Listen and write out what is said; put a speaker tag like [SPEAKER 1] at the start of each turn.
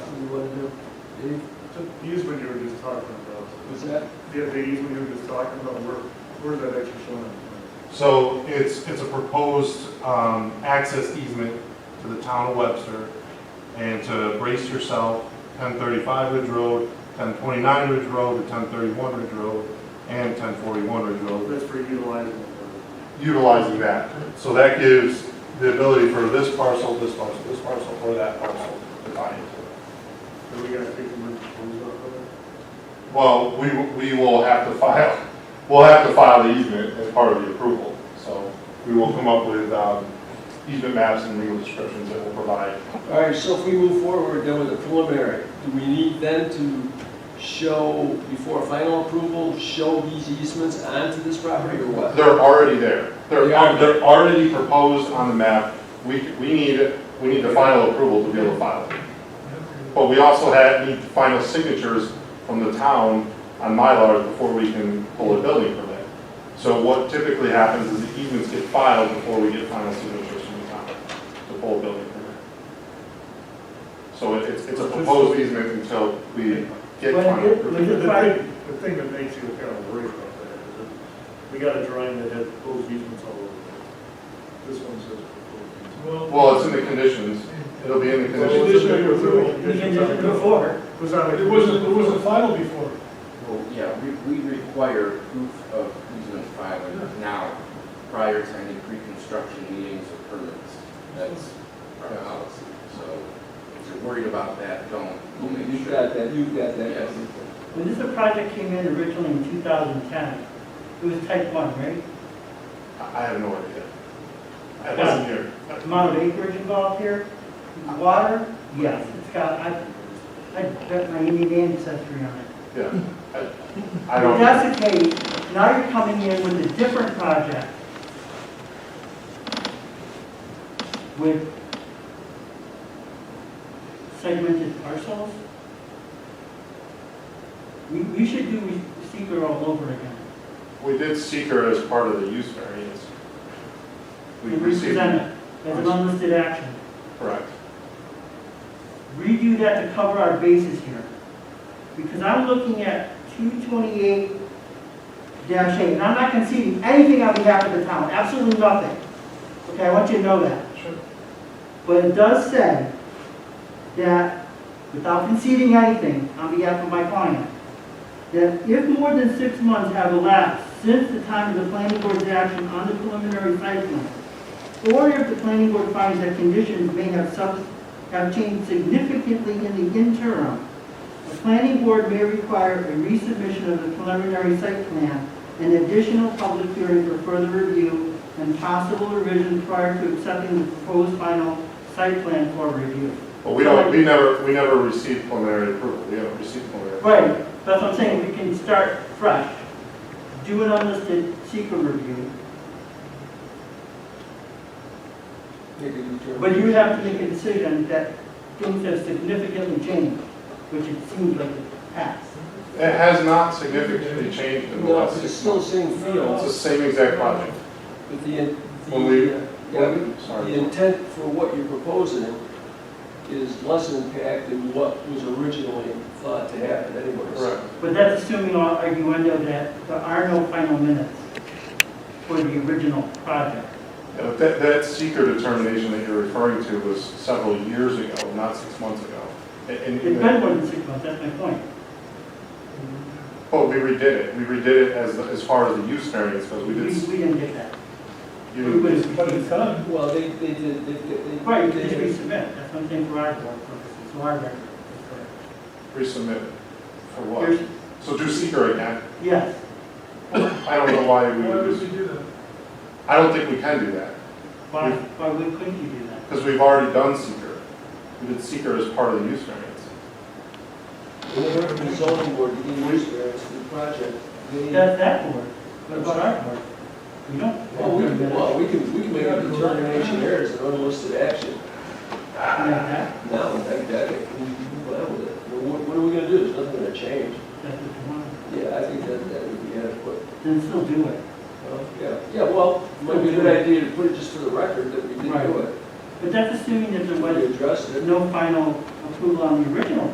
[SPEAKER 1] The easement you were just talking about,
[SPEAKER 2] Is that,
[SPEAKER 1] the, the easement you were just talking about, where, where's that actually shown?
[SPEAKER 3] So it's, it's a proposed um, access easement to the town of Webster and to brace yourself, 1035 Ridge Road, 1029 Ridge Road, to 1031 Ridge Road, and 1041 Ridge Road,
[SPEAKER 1] That's for utilizing it.
[SPEAKER 3] utilizing that. So that gives the ability for this parcel, this parcel, this parcel, or that parcel to tie into it.
[SPEAKER 1] So we gotta take the merge proposal out of it.
[SPEAKER 3] Well, we, we will have to file, we'll have to file the easement as part of the approval. So we will come up with um, easement maps and legal descriptions that will provide.
[SPEAKER 2] all right, so if we move forward then with the preliminary, do we need then to show, before final approval, show these easements onto this property or what?
[SPEAKER 3] They're already there. They're,
[SPEAKER 2] They are.
[SPEAKER 3] they're already proposed on the map. We, we need, we need the final approval to be able to file it. But we also had, need final signatures from the town on Mylar before we can pull a building permit. So what typically happens is the easements get filed before we get final signatures from the town to pull a building permit. So it- it's, it's a proposed easement until we get final
[SPEAKER 4] When
[SPEAKER 3] approval.
[SPEAKER 4] you-
[SPEAKER 1] The
[SPEAKER 4] Is it by-
[SPEAKER 1] thing, the thing that makes you kind of worried about that is that we got a drawing that has proposed easements all over it. This one says proposed easements.
[SPEAKER 3] Well, it's in the conditions. It'll be in the
[SPEAKER 1] Well, it's-
[SPEAKER 3] conditions.
[SPEAKER 1] Conditional approval.
[SPEAKER 4] Before,
[SPEAKER 1] Was that a-
[SPEAKER 4] it wasn't, it wasn't final before.
[SPEAKER 5] Well, yeah, we, we require proof of easement filing now, prior to any pre-construction meetings or permits. That's our policy, so if you're worried about that, don't, we'll make
[SPEAKER 2] You've
[SPEAKER 5] sure.
[SPEAKER 2] got that, you've got that.
[SPEAKER 5] Yes.
[SPEAKER 4] When this project came in originally in 2010, it was type 1, right?
[SPEAKER 3] I I have no idea. I wasn't here.
[SPEAKER 4] Amount of acreage involved here, water, yes, it's got, I, I bet my Indian ancestry on it.
[SPEAKER 3] Yeah. I- I
[SPEAKER 4] If
[SPEAKER 3] don't.
[SPEAKER 4] that's the case, now you're coming in with a different project. With segmented parcels. We, we should do seeker all over again.
[SPEAKER 3] We did seeker as part of the use variance. We
[SPEAKER 4] And
[SPEAKER 3] received,
[SPEAKER 4] represent it as an unlisted action.
[SPEAKER 3] correct.
[SPEAKER 4] redo that to cover our bases here. Because I'm looking at two twenty-eight eight, and I'm not conceding anything on behalf of the town, absolutely nothing. Okay, I want you to know that.
[SPEAKER 3] Sure.
[SPEAKER 4] But it does say that, without conceding anything on behalf of my client, that if more than six months have elapsed since the time of the planning board's action on the preliminary site plan, or if the planning board finds that conditions may have subs, have changed significantly in the interim, the planning board may require a resubmission of the preliminary site plan, an additional public hearing for further review, and possible revision prior to accepting the proposed final site plan for review.
[SPEAKER 3] But we don't, we never, we never received preliminary approval. We haven't received preliminary. approval.
[SPEAKER 4] Right, that's what I'm saying, we can start fresh, do an unlisted secret review,
[SPEAKER 2] Make a determination.
[SPEAKER 4] but you would have to make a decision that things have significantly changed, which it seems like it has.
[SPEAKER 3] It has not significantly changed in the
[SPEAKER 2] No,
[SPEAKER 3] last
[SPEAKER 2] it's
[SPEAKER 3] six
[SPEAKER 2] still the
[SPEAKER 3] months.
[SPEAKER 2] same
[SPEAKER 3] It's the
[SPEAKER 2] fields,
[SPEAKER 3] same exact project.
[SPEAKER 2] but the, in-
[SPEAKER 3] When we-
[SPEAKER 2] the, uh, yeah,
[SPEAKER 3] Well,
[SPEAKER 2] the
[SPEAKER 3] Sorry.
[SPEAKER 2] intent for what you're proposing is less impact than what was originally thought to happen anyways.
[SPEAKER 3] Correct.
[SPEAKER 4] But that's assuming all arguendo that there are no final minutes for the original project.
[SPEAKER 3] Yeah, but that, that seeker determination that you're referring to was several years ago, not six months ago. And- and-
[SPEAKER 4] It's been more than six months, that's my point.
[SPEAKER 3] But we redid it. We redid it as, as far as the use variance, because we
[SPEAKER 4] We,
[SPEAKER 3] did.
[SPEAKER 4] we didn't get that.
[SPEAKER 3] you-
[SPEAKER 4] We would have.
[SPEAKER 2] Uh, Well, they, they did, they, they.
[SPEAKER 4] Right, we
[SPEAKER 2] they-
[SPEAKER 4] did resubmit, that's one thing for our board purposes, so our record.
[SPEAKER 3] Resubmit for
[SPEAKER 4] Here's-
[SPEAKER 3] what? So do seeker again.
[SPEAKER 4] Yes,
[SPEAKER 3] I don't know why we would, do-
[SPEAKER 1] do that?
[SPEAKER 3] I don't think we can do that,
[SPEAKER 4] why, why would- couldn't you do that?
[SPEAKER 3] because we've already done seeker. We did seeker as part of the use variance.
[SPEAKER 2] When they went to the zoning board, to get use variance for the project, they.
[SPEAKER 4] That's that board, what about our board? Oh, We don't.
[SPEAKER 2] Well, we can, well, we can, we can make a determination there as an unlisted action.
[SPEAKER 4] That's,
[SPEAKER 2] No, that, that, we can go out with it. Well, What, what are we gonna do? There's nothing gonna change.
[SPEAKER 4] that's what you want,
[SPEAKER 2] Yeah, I think that, that would be adequate.
[SPEAKER 4] then still do it.
[SPEAKER 2] Well, Yeah, yeah, well, might be a good idea to put it just for the record that we did do
[SPEAKER 4] Right.
[SPEAKER 2] it.
[SPEAKER 4] But that's assuming that there
[SPEAKER 2] Might
[SPEAKER 4] was
[SPEAKER 2] address it.
[SPEAKER 4] no final approval on the original